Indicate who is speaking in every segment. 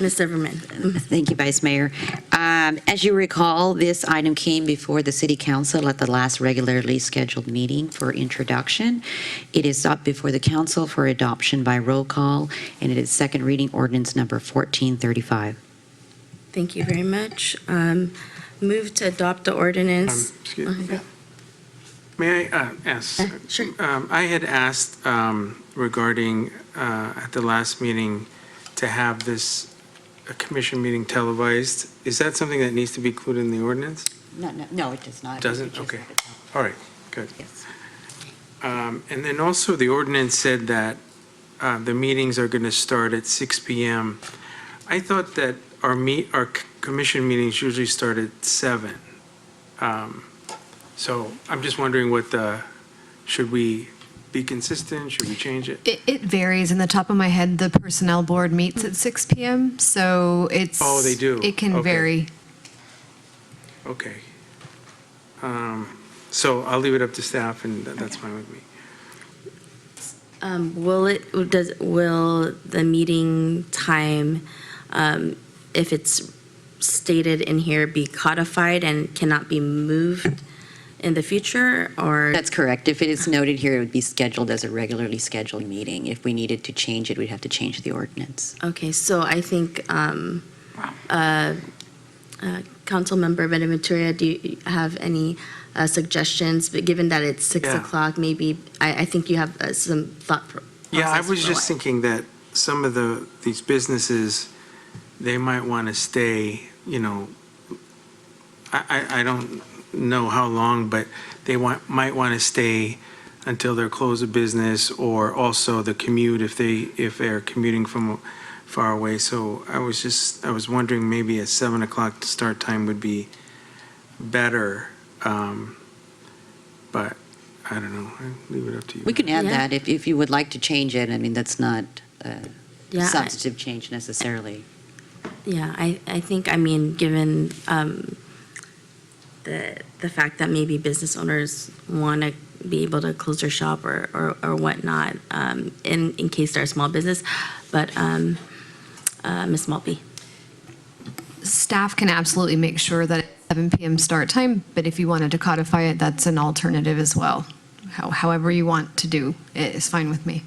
Speaker 1: Ms. Zimmerman.
Speaker 2: Thank you, Vice Mayor. Um, As you recall, this item came before the City Council at the last regularly scheduled meeting for introduction. It is up before the council for adoption by roll call, and it is second reading ordinance number 1435.
Speaker 1: Thank you very much. Um, Move to adopt the ordinance.
Speaker 3: Um, excuse- May I uh, ask?
Speaker 1: Uh-huh. Sure.
Speaker 3: Um, I had asked um, regarding, uh, at the last meeting, to have this uh, commission meeting televised. Is that something that needs to be included in the ordinance?
Speaker 2: No, no, no, it does not.
Speaker 3: Doesn't? Okay. All right, good.
Speaker 2: Yes.
Speaker 3: Um, And then also, the ordinance said that uh, the meetings are going to start at 6 PM. I thought that our meet, our c- commission meetings usually start at 7. Um, So I'm just wondering what the, should we be consistent? Should we change it?
Speaker 4: It, it varies. In the top of my head, the personnel board meets at 6 p.m. So it's.
Speaker 3: Oh, they do.
Speaker 4: It can
Speaker 3: Okay.
Speaker 4: vary.
Speaker 3: Okay. Um, So I'll leave it up to staff, and tha- that's fine with me.
Speaker 1: Um, Will it, does, will the meeting time, um, if it's stated in here, be codified and cannot be moved in the future? Or,
Speaker 2: That's correct. If it is noted here, it would be scheduled as a regularly scheduled meeting. If we needed to change it, we'd have to change the ordinance.
Speaker 1: okay, so I think, um, uh, uh, Councilmember Benaventuria, do you have any uh, suggestions? But given that it's 6
Speaker 3: Yeah.
Speaker 1: o'clock, maybe, I, I think you have uh, some thought pro-
Speaker 3: Yeah, I
Speaker 1: process
Speaker 3: was
Speaker 1: for
Speaker 3: just
Speaker 1: what-
Speaker 3: thinking that some of the, these businesses, they might want to stay, you know, I, I, I don't know how long, but they want, might want to stay until their close of business or also the commute if they, if they're commuting from far away. So I was just, I was wondering maybe a seven o'clock start time would be better. um, But I don't know, I leave it up to you.
Speaker 2: We can add
Speaker 1: Yeah.
Speaker 2: that if, if you would like to change it. I mean, that's not a
Speaker 1: Yeah, I-
Speaker 2: substantive change necessarily.
Speaker 1: Yeah, I, I think, I mean, given um, the, the fact that maybe business owners want to be able to close their shop or, or or whatnot um, in, in case they're a small business, but um, uh, Ms. Maltby?
Speaker 4: Staff can absolutely make sure that it's 7 p.m. start time, but if you wanted to codify it, that's an alternative as well. How, however you want to do it is fine with me.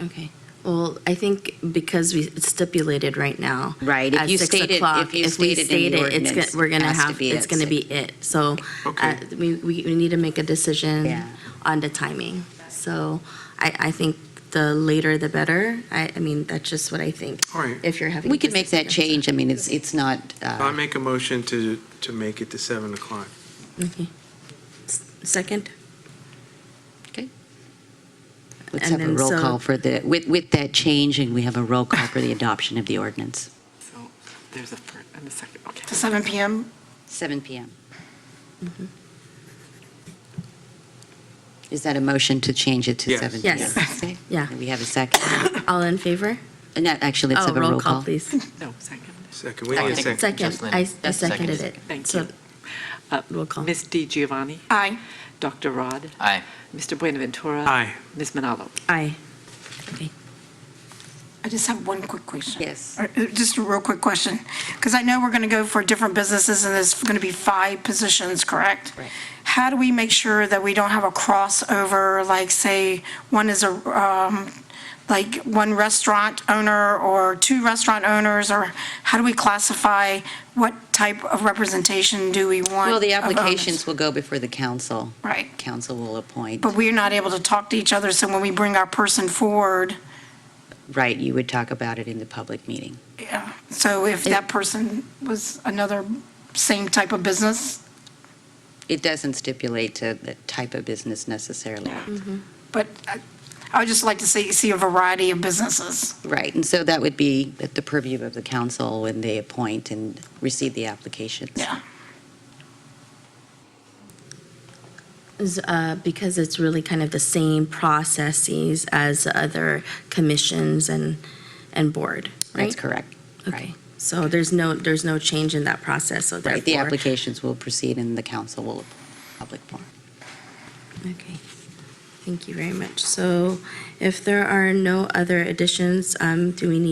Speaker 1: Okay. Well, I think because we it's stipulated right now.
Speaker 2: Right, if
Speaker 1: at
Speaker 2: you
Speaker 1: six
Speaker 2: stated- if
Speaker 1: o'clock,
Speaker 2: you
Speaker 1: we
Speaker 2: stated in the
Speaker 1: state it, it's
Speaker 2: ordinance,
Speaker 1: gonna- We're
Speaker 2: it
Speaker 1: gonna
Speaker 2: has to
Speaker 1: have,
Speaker 2: be
Speaker 1: it's
Speaker 2: at
Speaker 1: gonna
Speaker 2: six.
Speaker 1: be it. So uh,
Speaker 3: Okay.
Speaker 1: we, we we need to make a
Speaker 2: Yeah.
Speaker 1: decision on the timing. So I, I think the later the better. I, I mean, that's just what I think.
Speaker 3: All right.
Speaker 1: If you're having.
Speaker 2: We
Speaker 1: a
Speaker 2: could make that
Speaker 1: business
Speaker 2: change. I mean, it's, it's not,
Speaker 3: I'll
Speaker 2: uh,
Speaker 1: Um,
Speaker 3: make a motion to, to make it to 7 o'clock.
Speaker 1: Okay. S- Second?
Speaker 2: let's
Speaker 1: and
Speaker 2: have a
Speaker 1: then
Speaker 2: roll
Speaker 1: so-
Speaker 2: call for the, with, with that change, and we have a roll call for the adoption of the ordinance.
Speaker 5: So there's a first and a second, okay.
Speaker 6: To 7 PM?
Speaker 2: 7 PM. Mm-hmm. Is that a motion to change it to
Speaker 3: Yes.
Speaker 2: 7 PM?
Speaker 1: Yes.
Speaker 2: Okay.
Speaker 1: Yeah.
Speaker 2: And We have a second.
Speaker 1: All in favor?
Speaker 2: And that, actually, let's
Speaker 1: Oh,
Speaker 2: have a roll call.
Speaker 1: please.
Speaker 5: No, second.
Speaker 3: Second, we need a second.
Speaker 1: Second,
Speaker 7: Jocelyn.
Speaker 1: I I
Speaker 7: Yes, second.
Speaker 1: seconded it.
Speaker 5: Thank
Speaker 1: So
Speaker 5: you. Uh,
Speaker 1: Roll call.
Speaker 5: Ms. Di Giovanni,
Speaker 6: Aye.
Speaker 5: Dr. Rod,
Speaker 7: Aye.
Speaker 5: Mr. Buenaventura.
Speaker 3: Aye.
Speaker 5: Ms. Manalo.
Speaker 1: Aye.
Speaker 6: I just have one quick question.
Speaker 2: Yes.
Speaker 6: Or, uh, Just a real quick question, because I know we're going to go for different businesses, and there's going to be five positions, correct?
Speaker 2: Right.
Speaker 6: How do we make sure that we don't have a crossover, like, say, one is a, um, like, one restaurant owner or two restaurant owners, or how do we classify what type of representation do we want?
Speaker 2: Well, the
Speaker 1: Uh-huh.
Speaker 6: of owners?
Speaker 2: applications will go before the council.
Speaker 6: Right.
Speaker 2: Council will appoint.
Speaker 6: But we're not able to talk to each other, so when we bring our person forward,
Speaker 2: Right, you would talk about it in the public meeting.
Speaker 6: Yeah, so if that person was another same type of business,
Speaker 2: It doesn't stipulate uh, the type of business necessarily.
Speaker 6: but I- I would just like to see, see a variety of businesses.
Speaker 2: Right, and so that would be at the purview of the council when they appoint and receive the applications.
Speaker 6: Yeah.
Speaker 1: is, uh, because it's really kind of the same processes as other commissions and, and board, right?
Speaker 2: That's correct.
Speaker 1: Okay, so there's no, there's no change in that process, so
Speaker 2: Right, the
Speaker 1: therefore.
Speaker 2: applications will proceed and the council will public forum.
Speaker 1: Okay, thank you very much. So if there are no other additions, um, do we need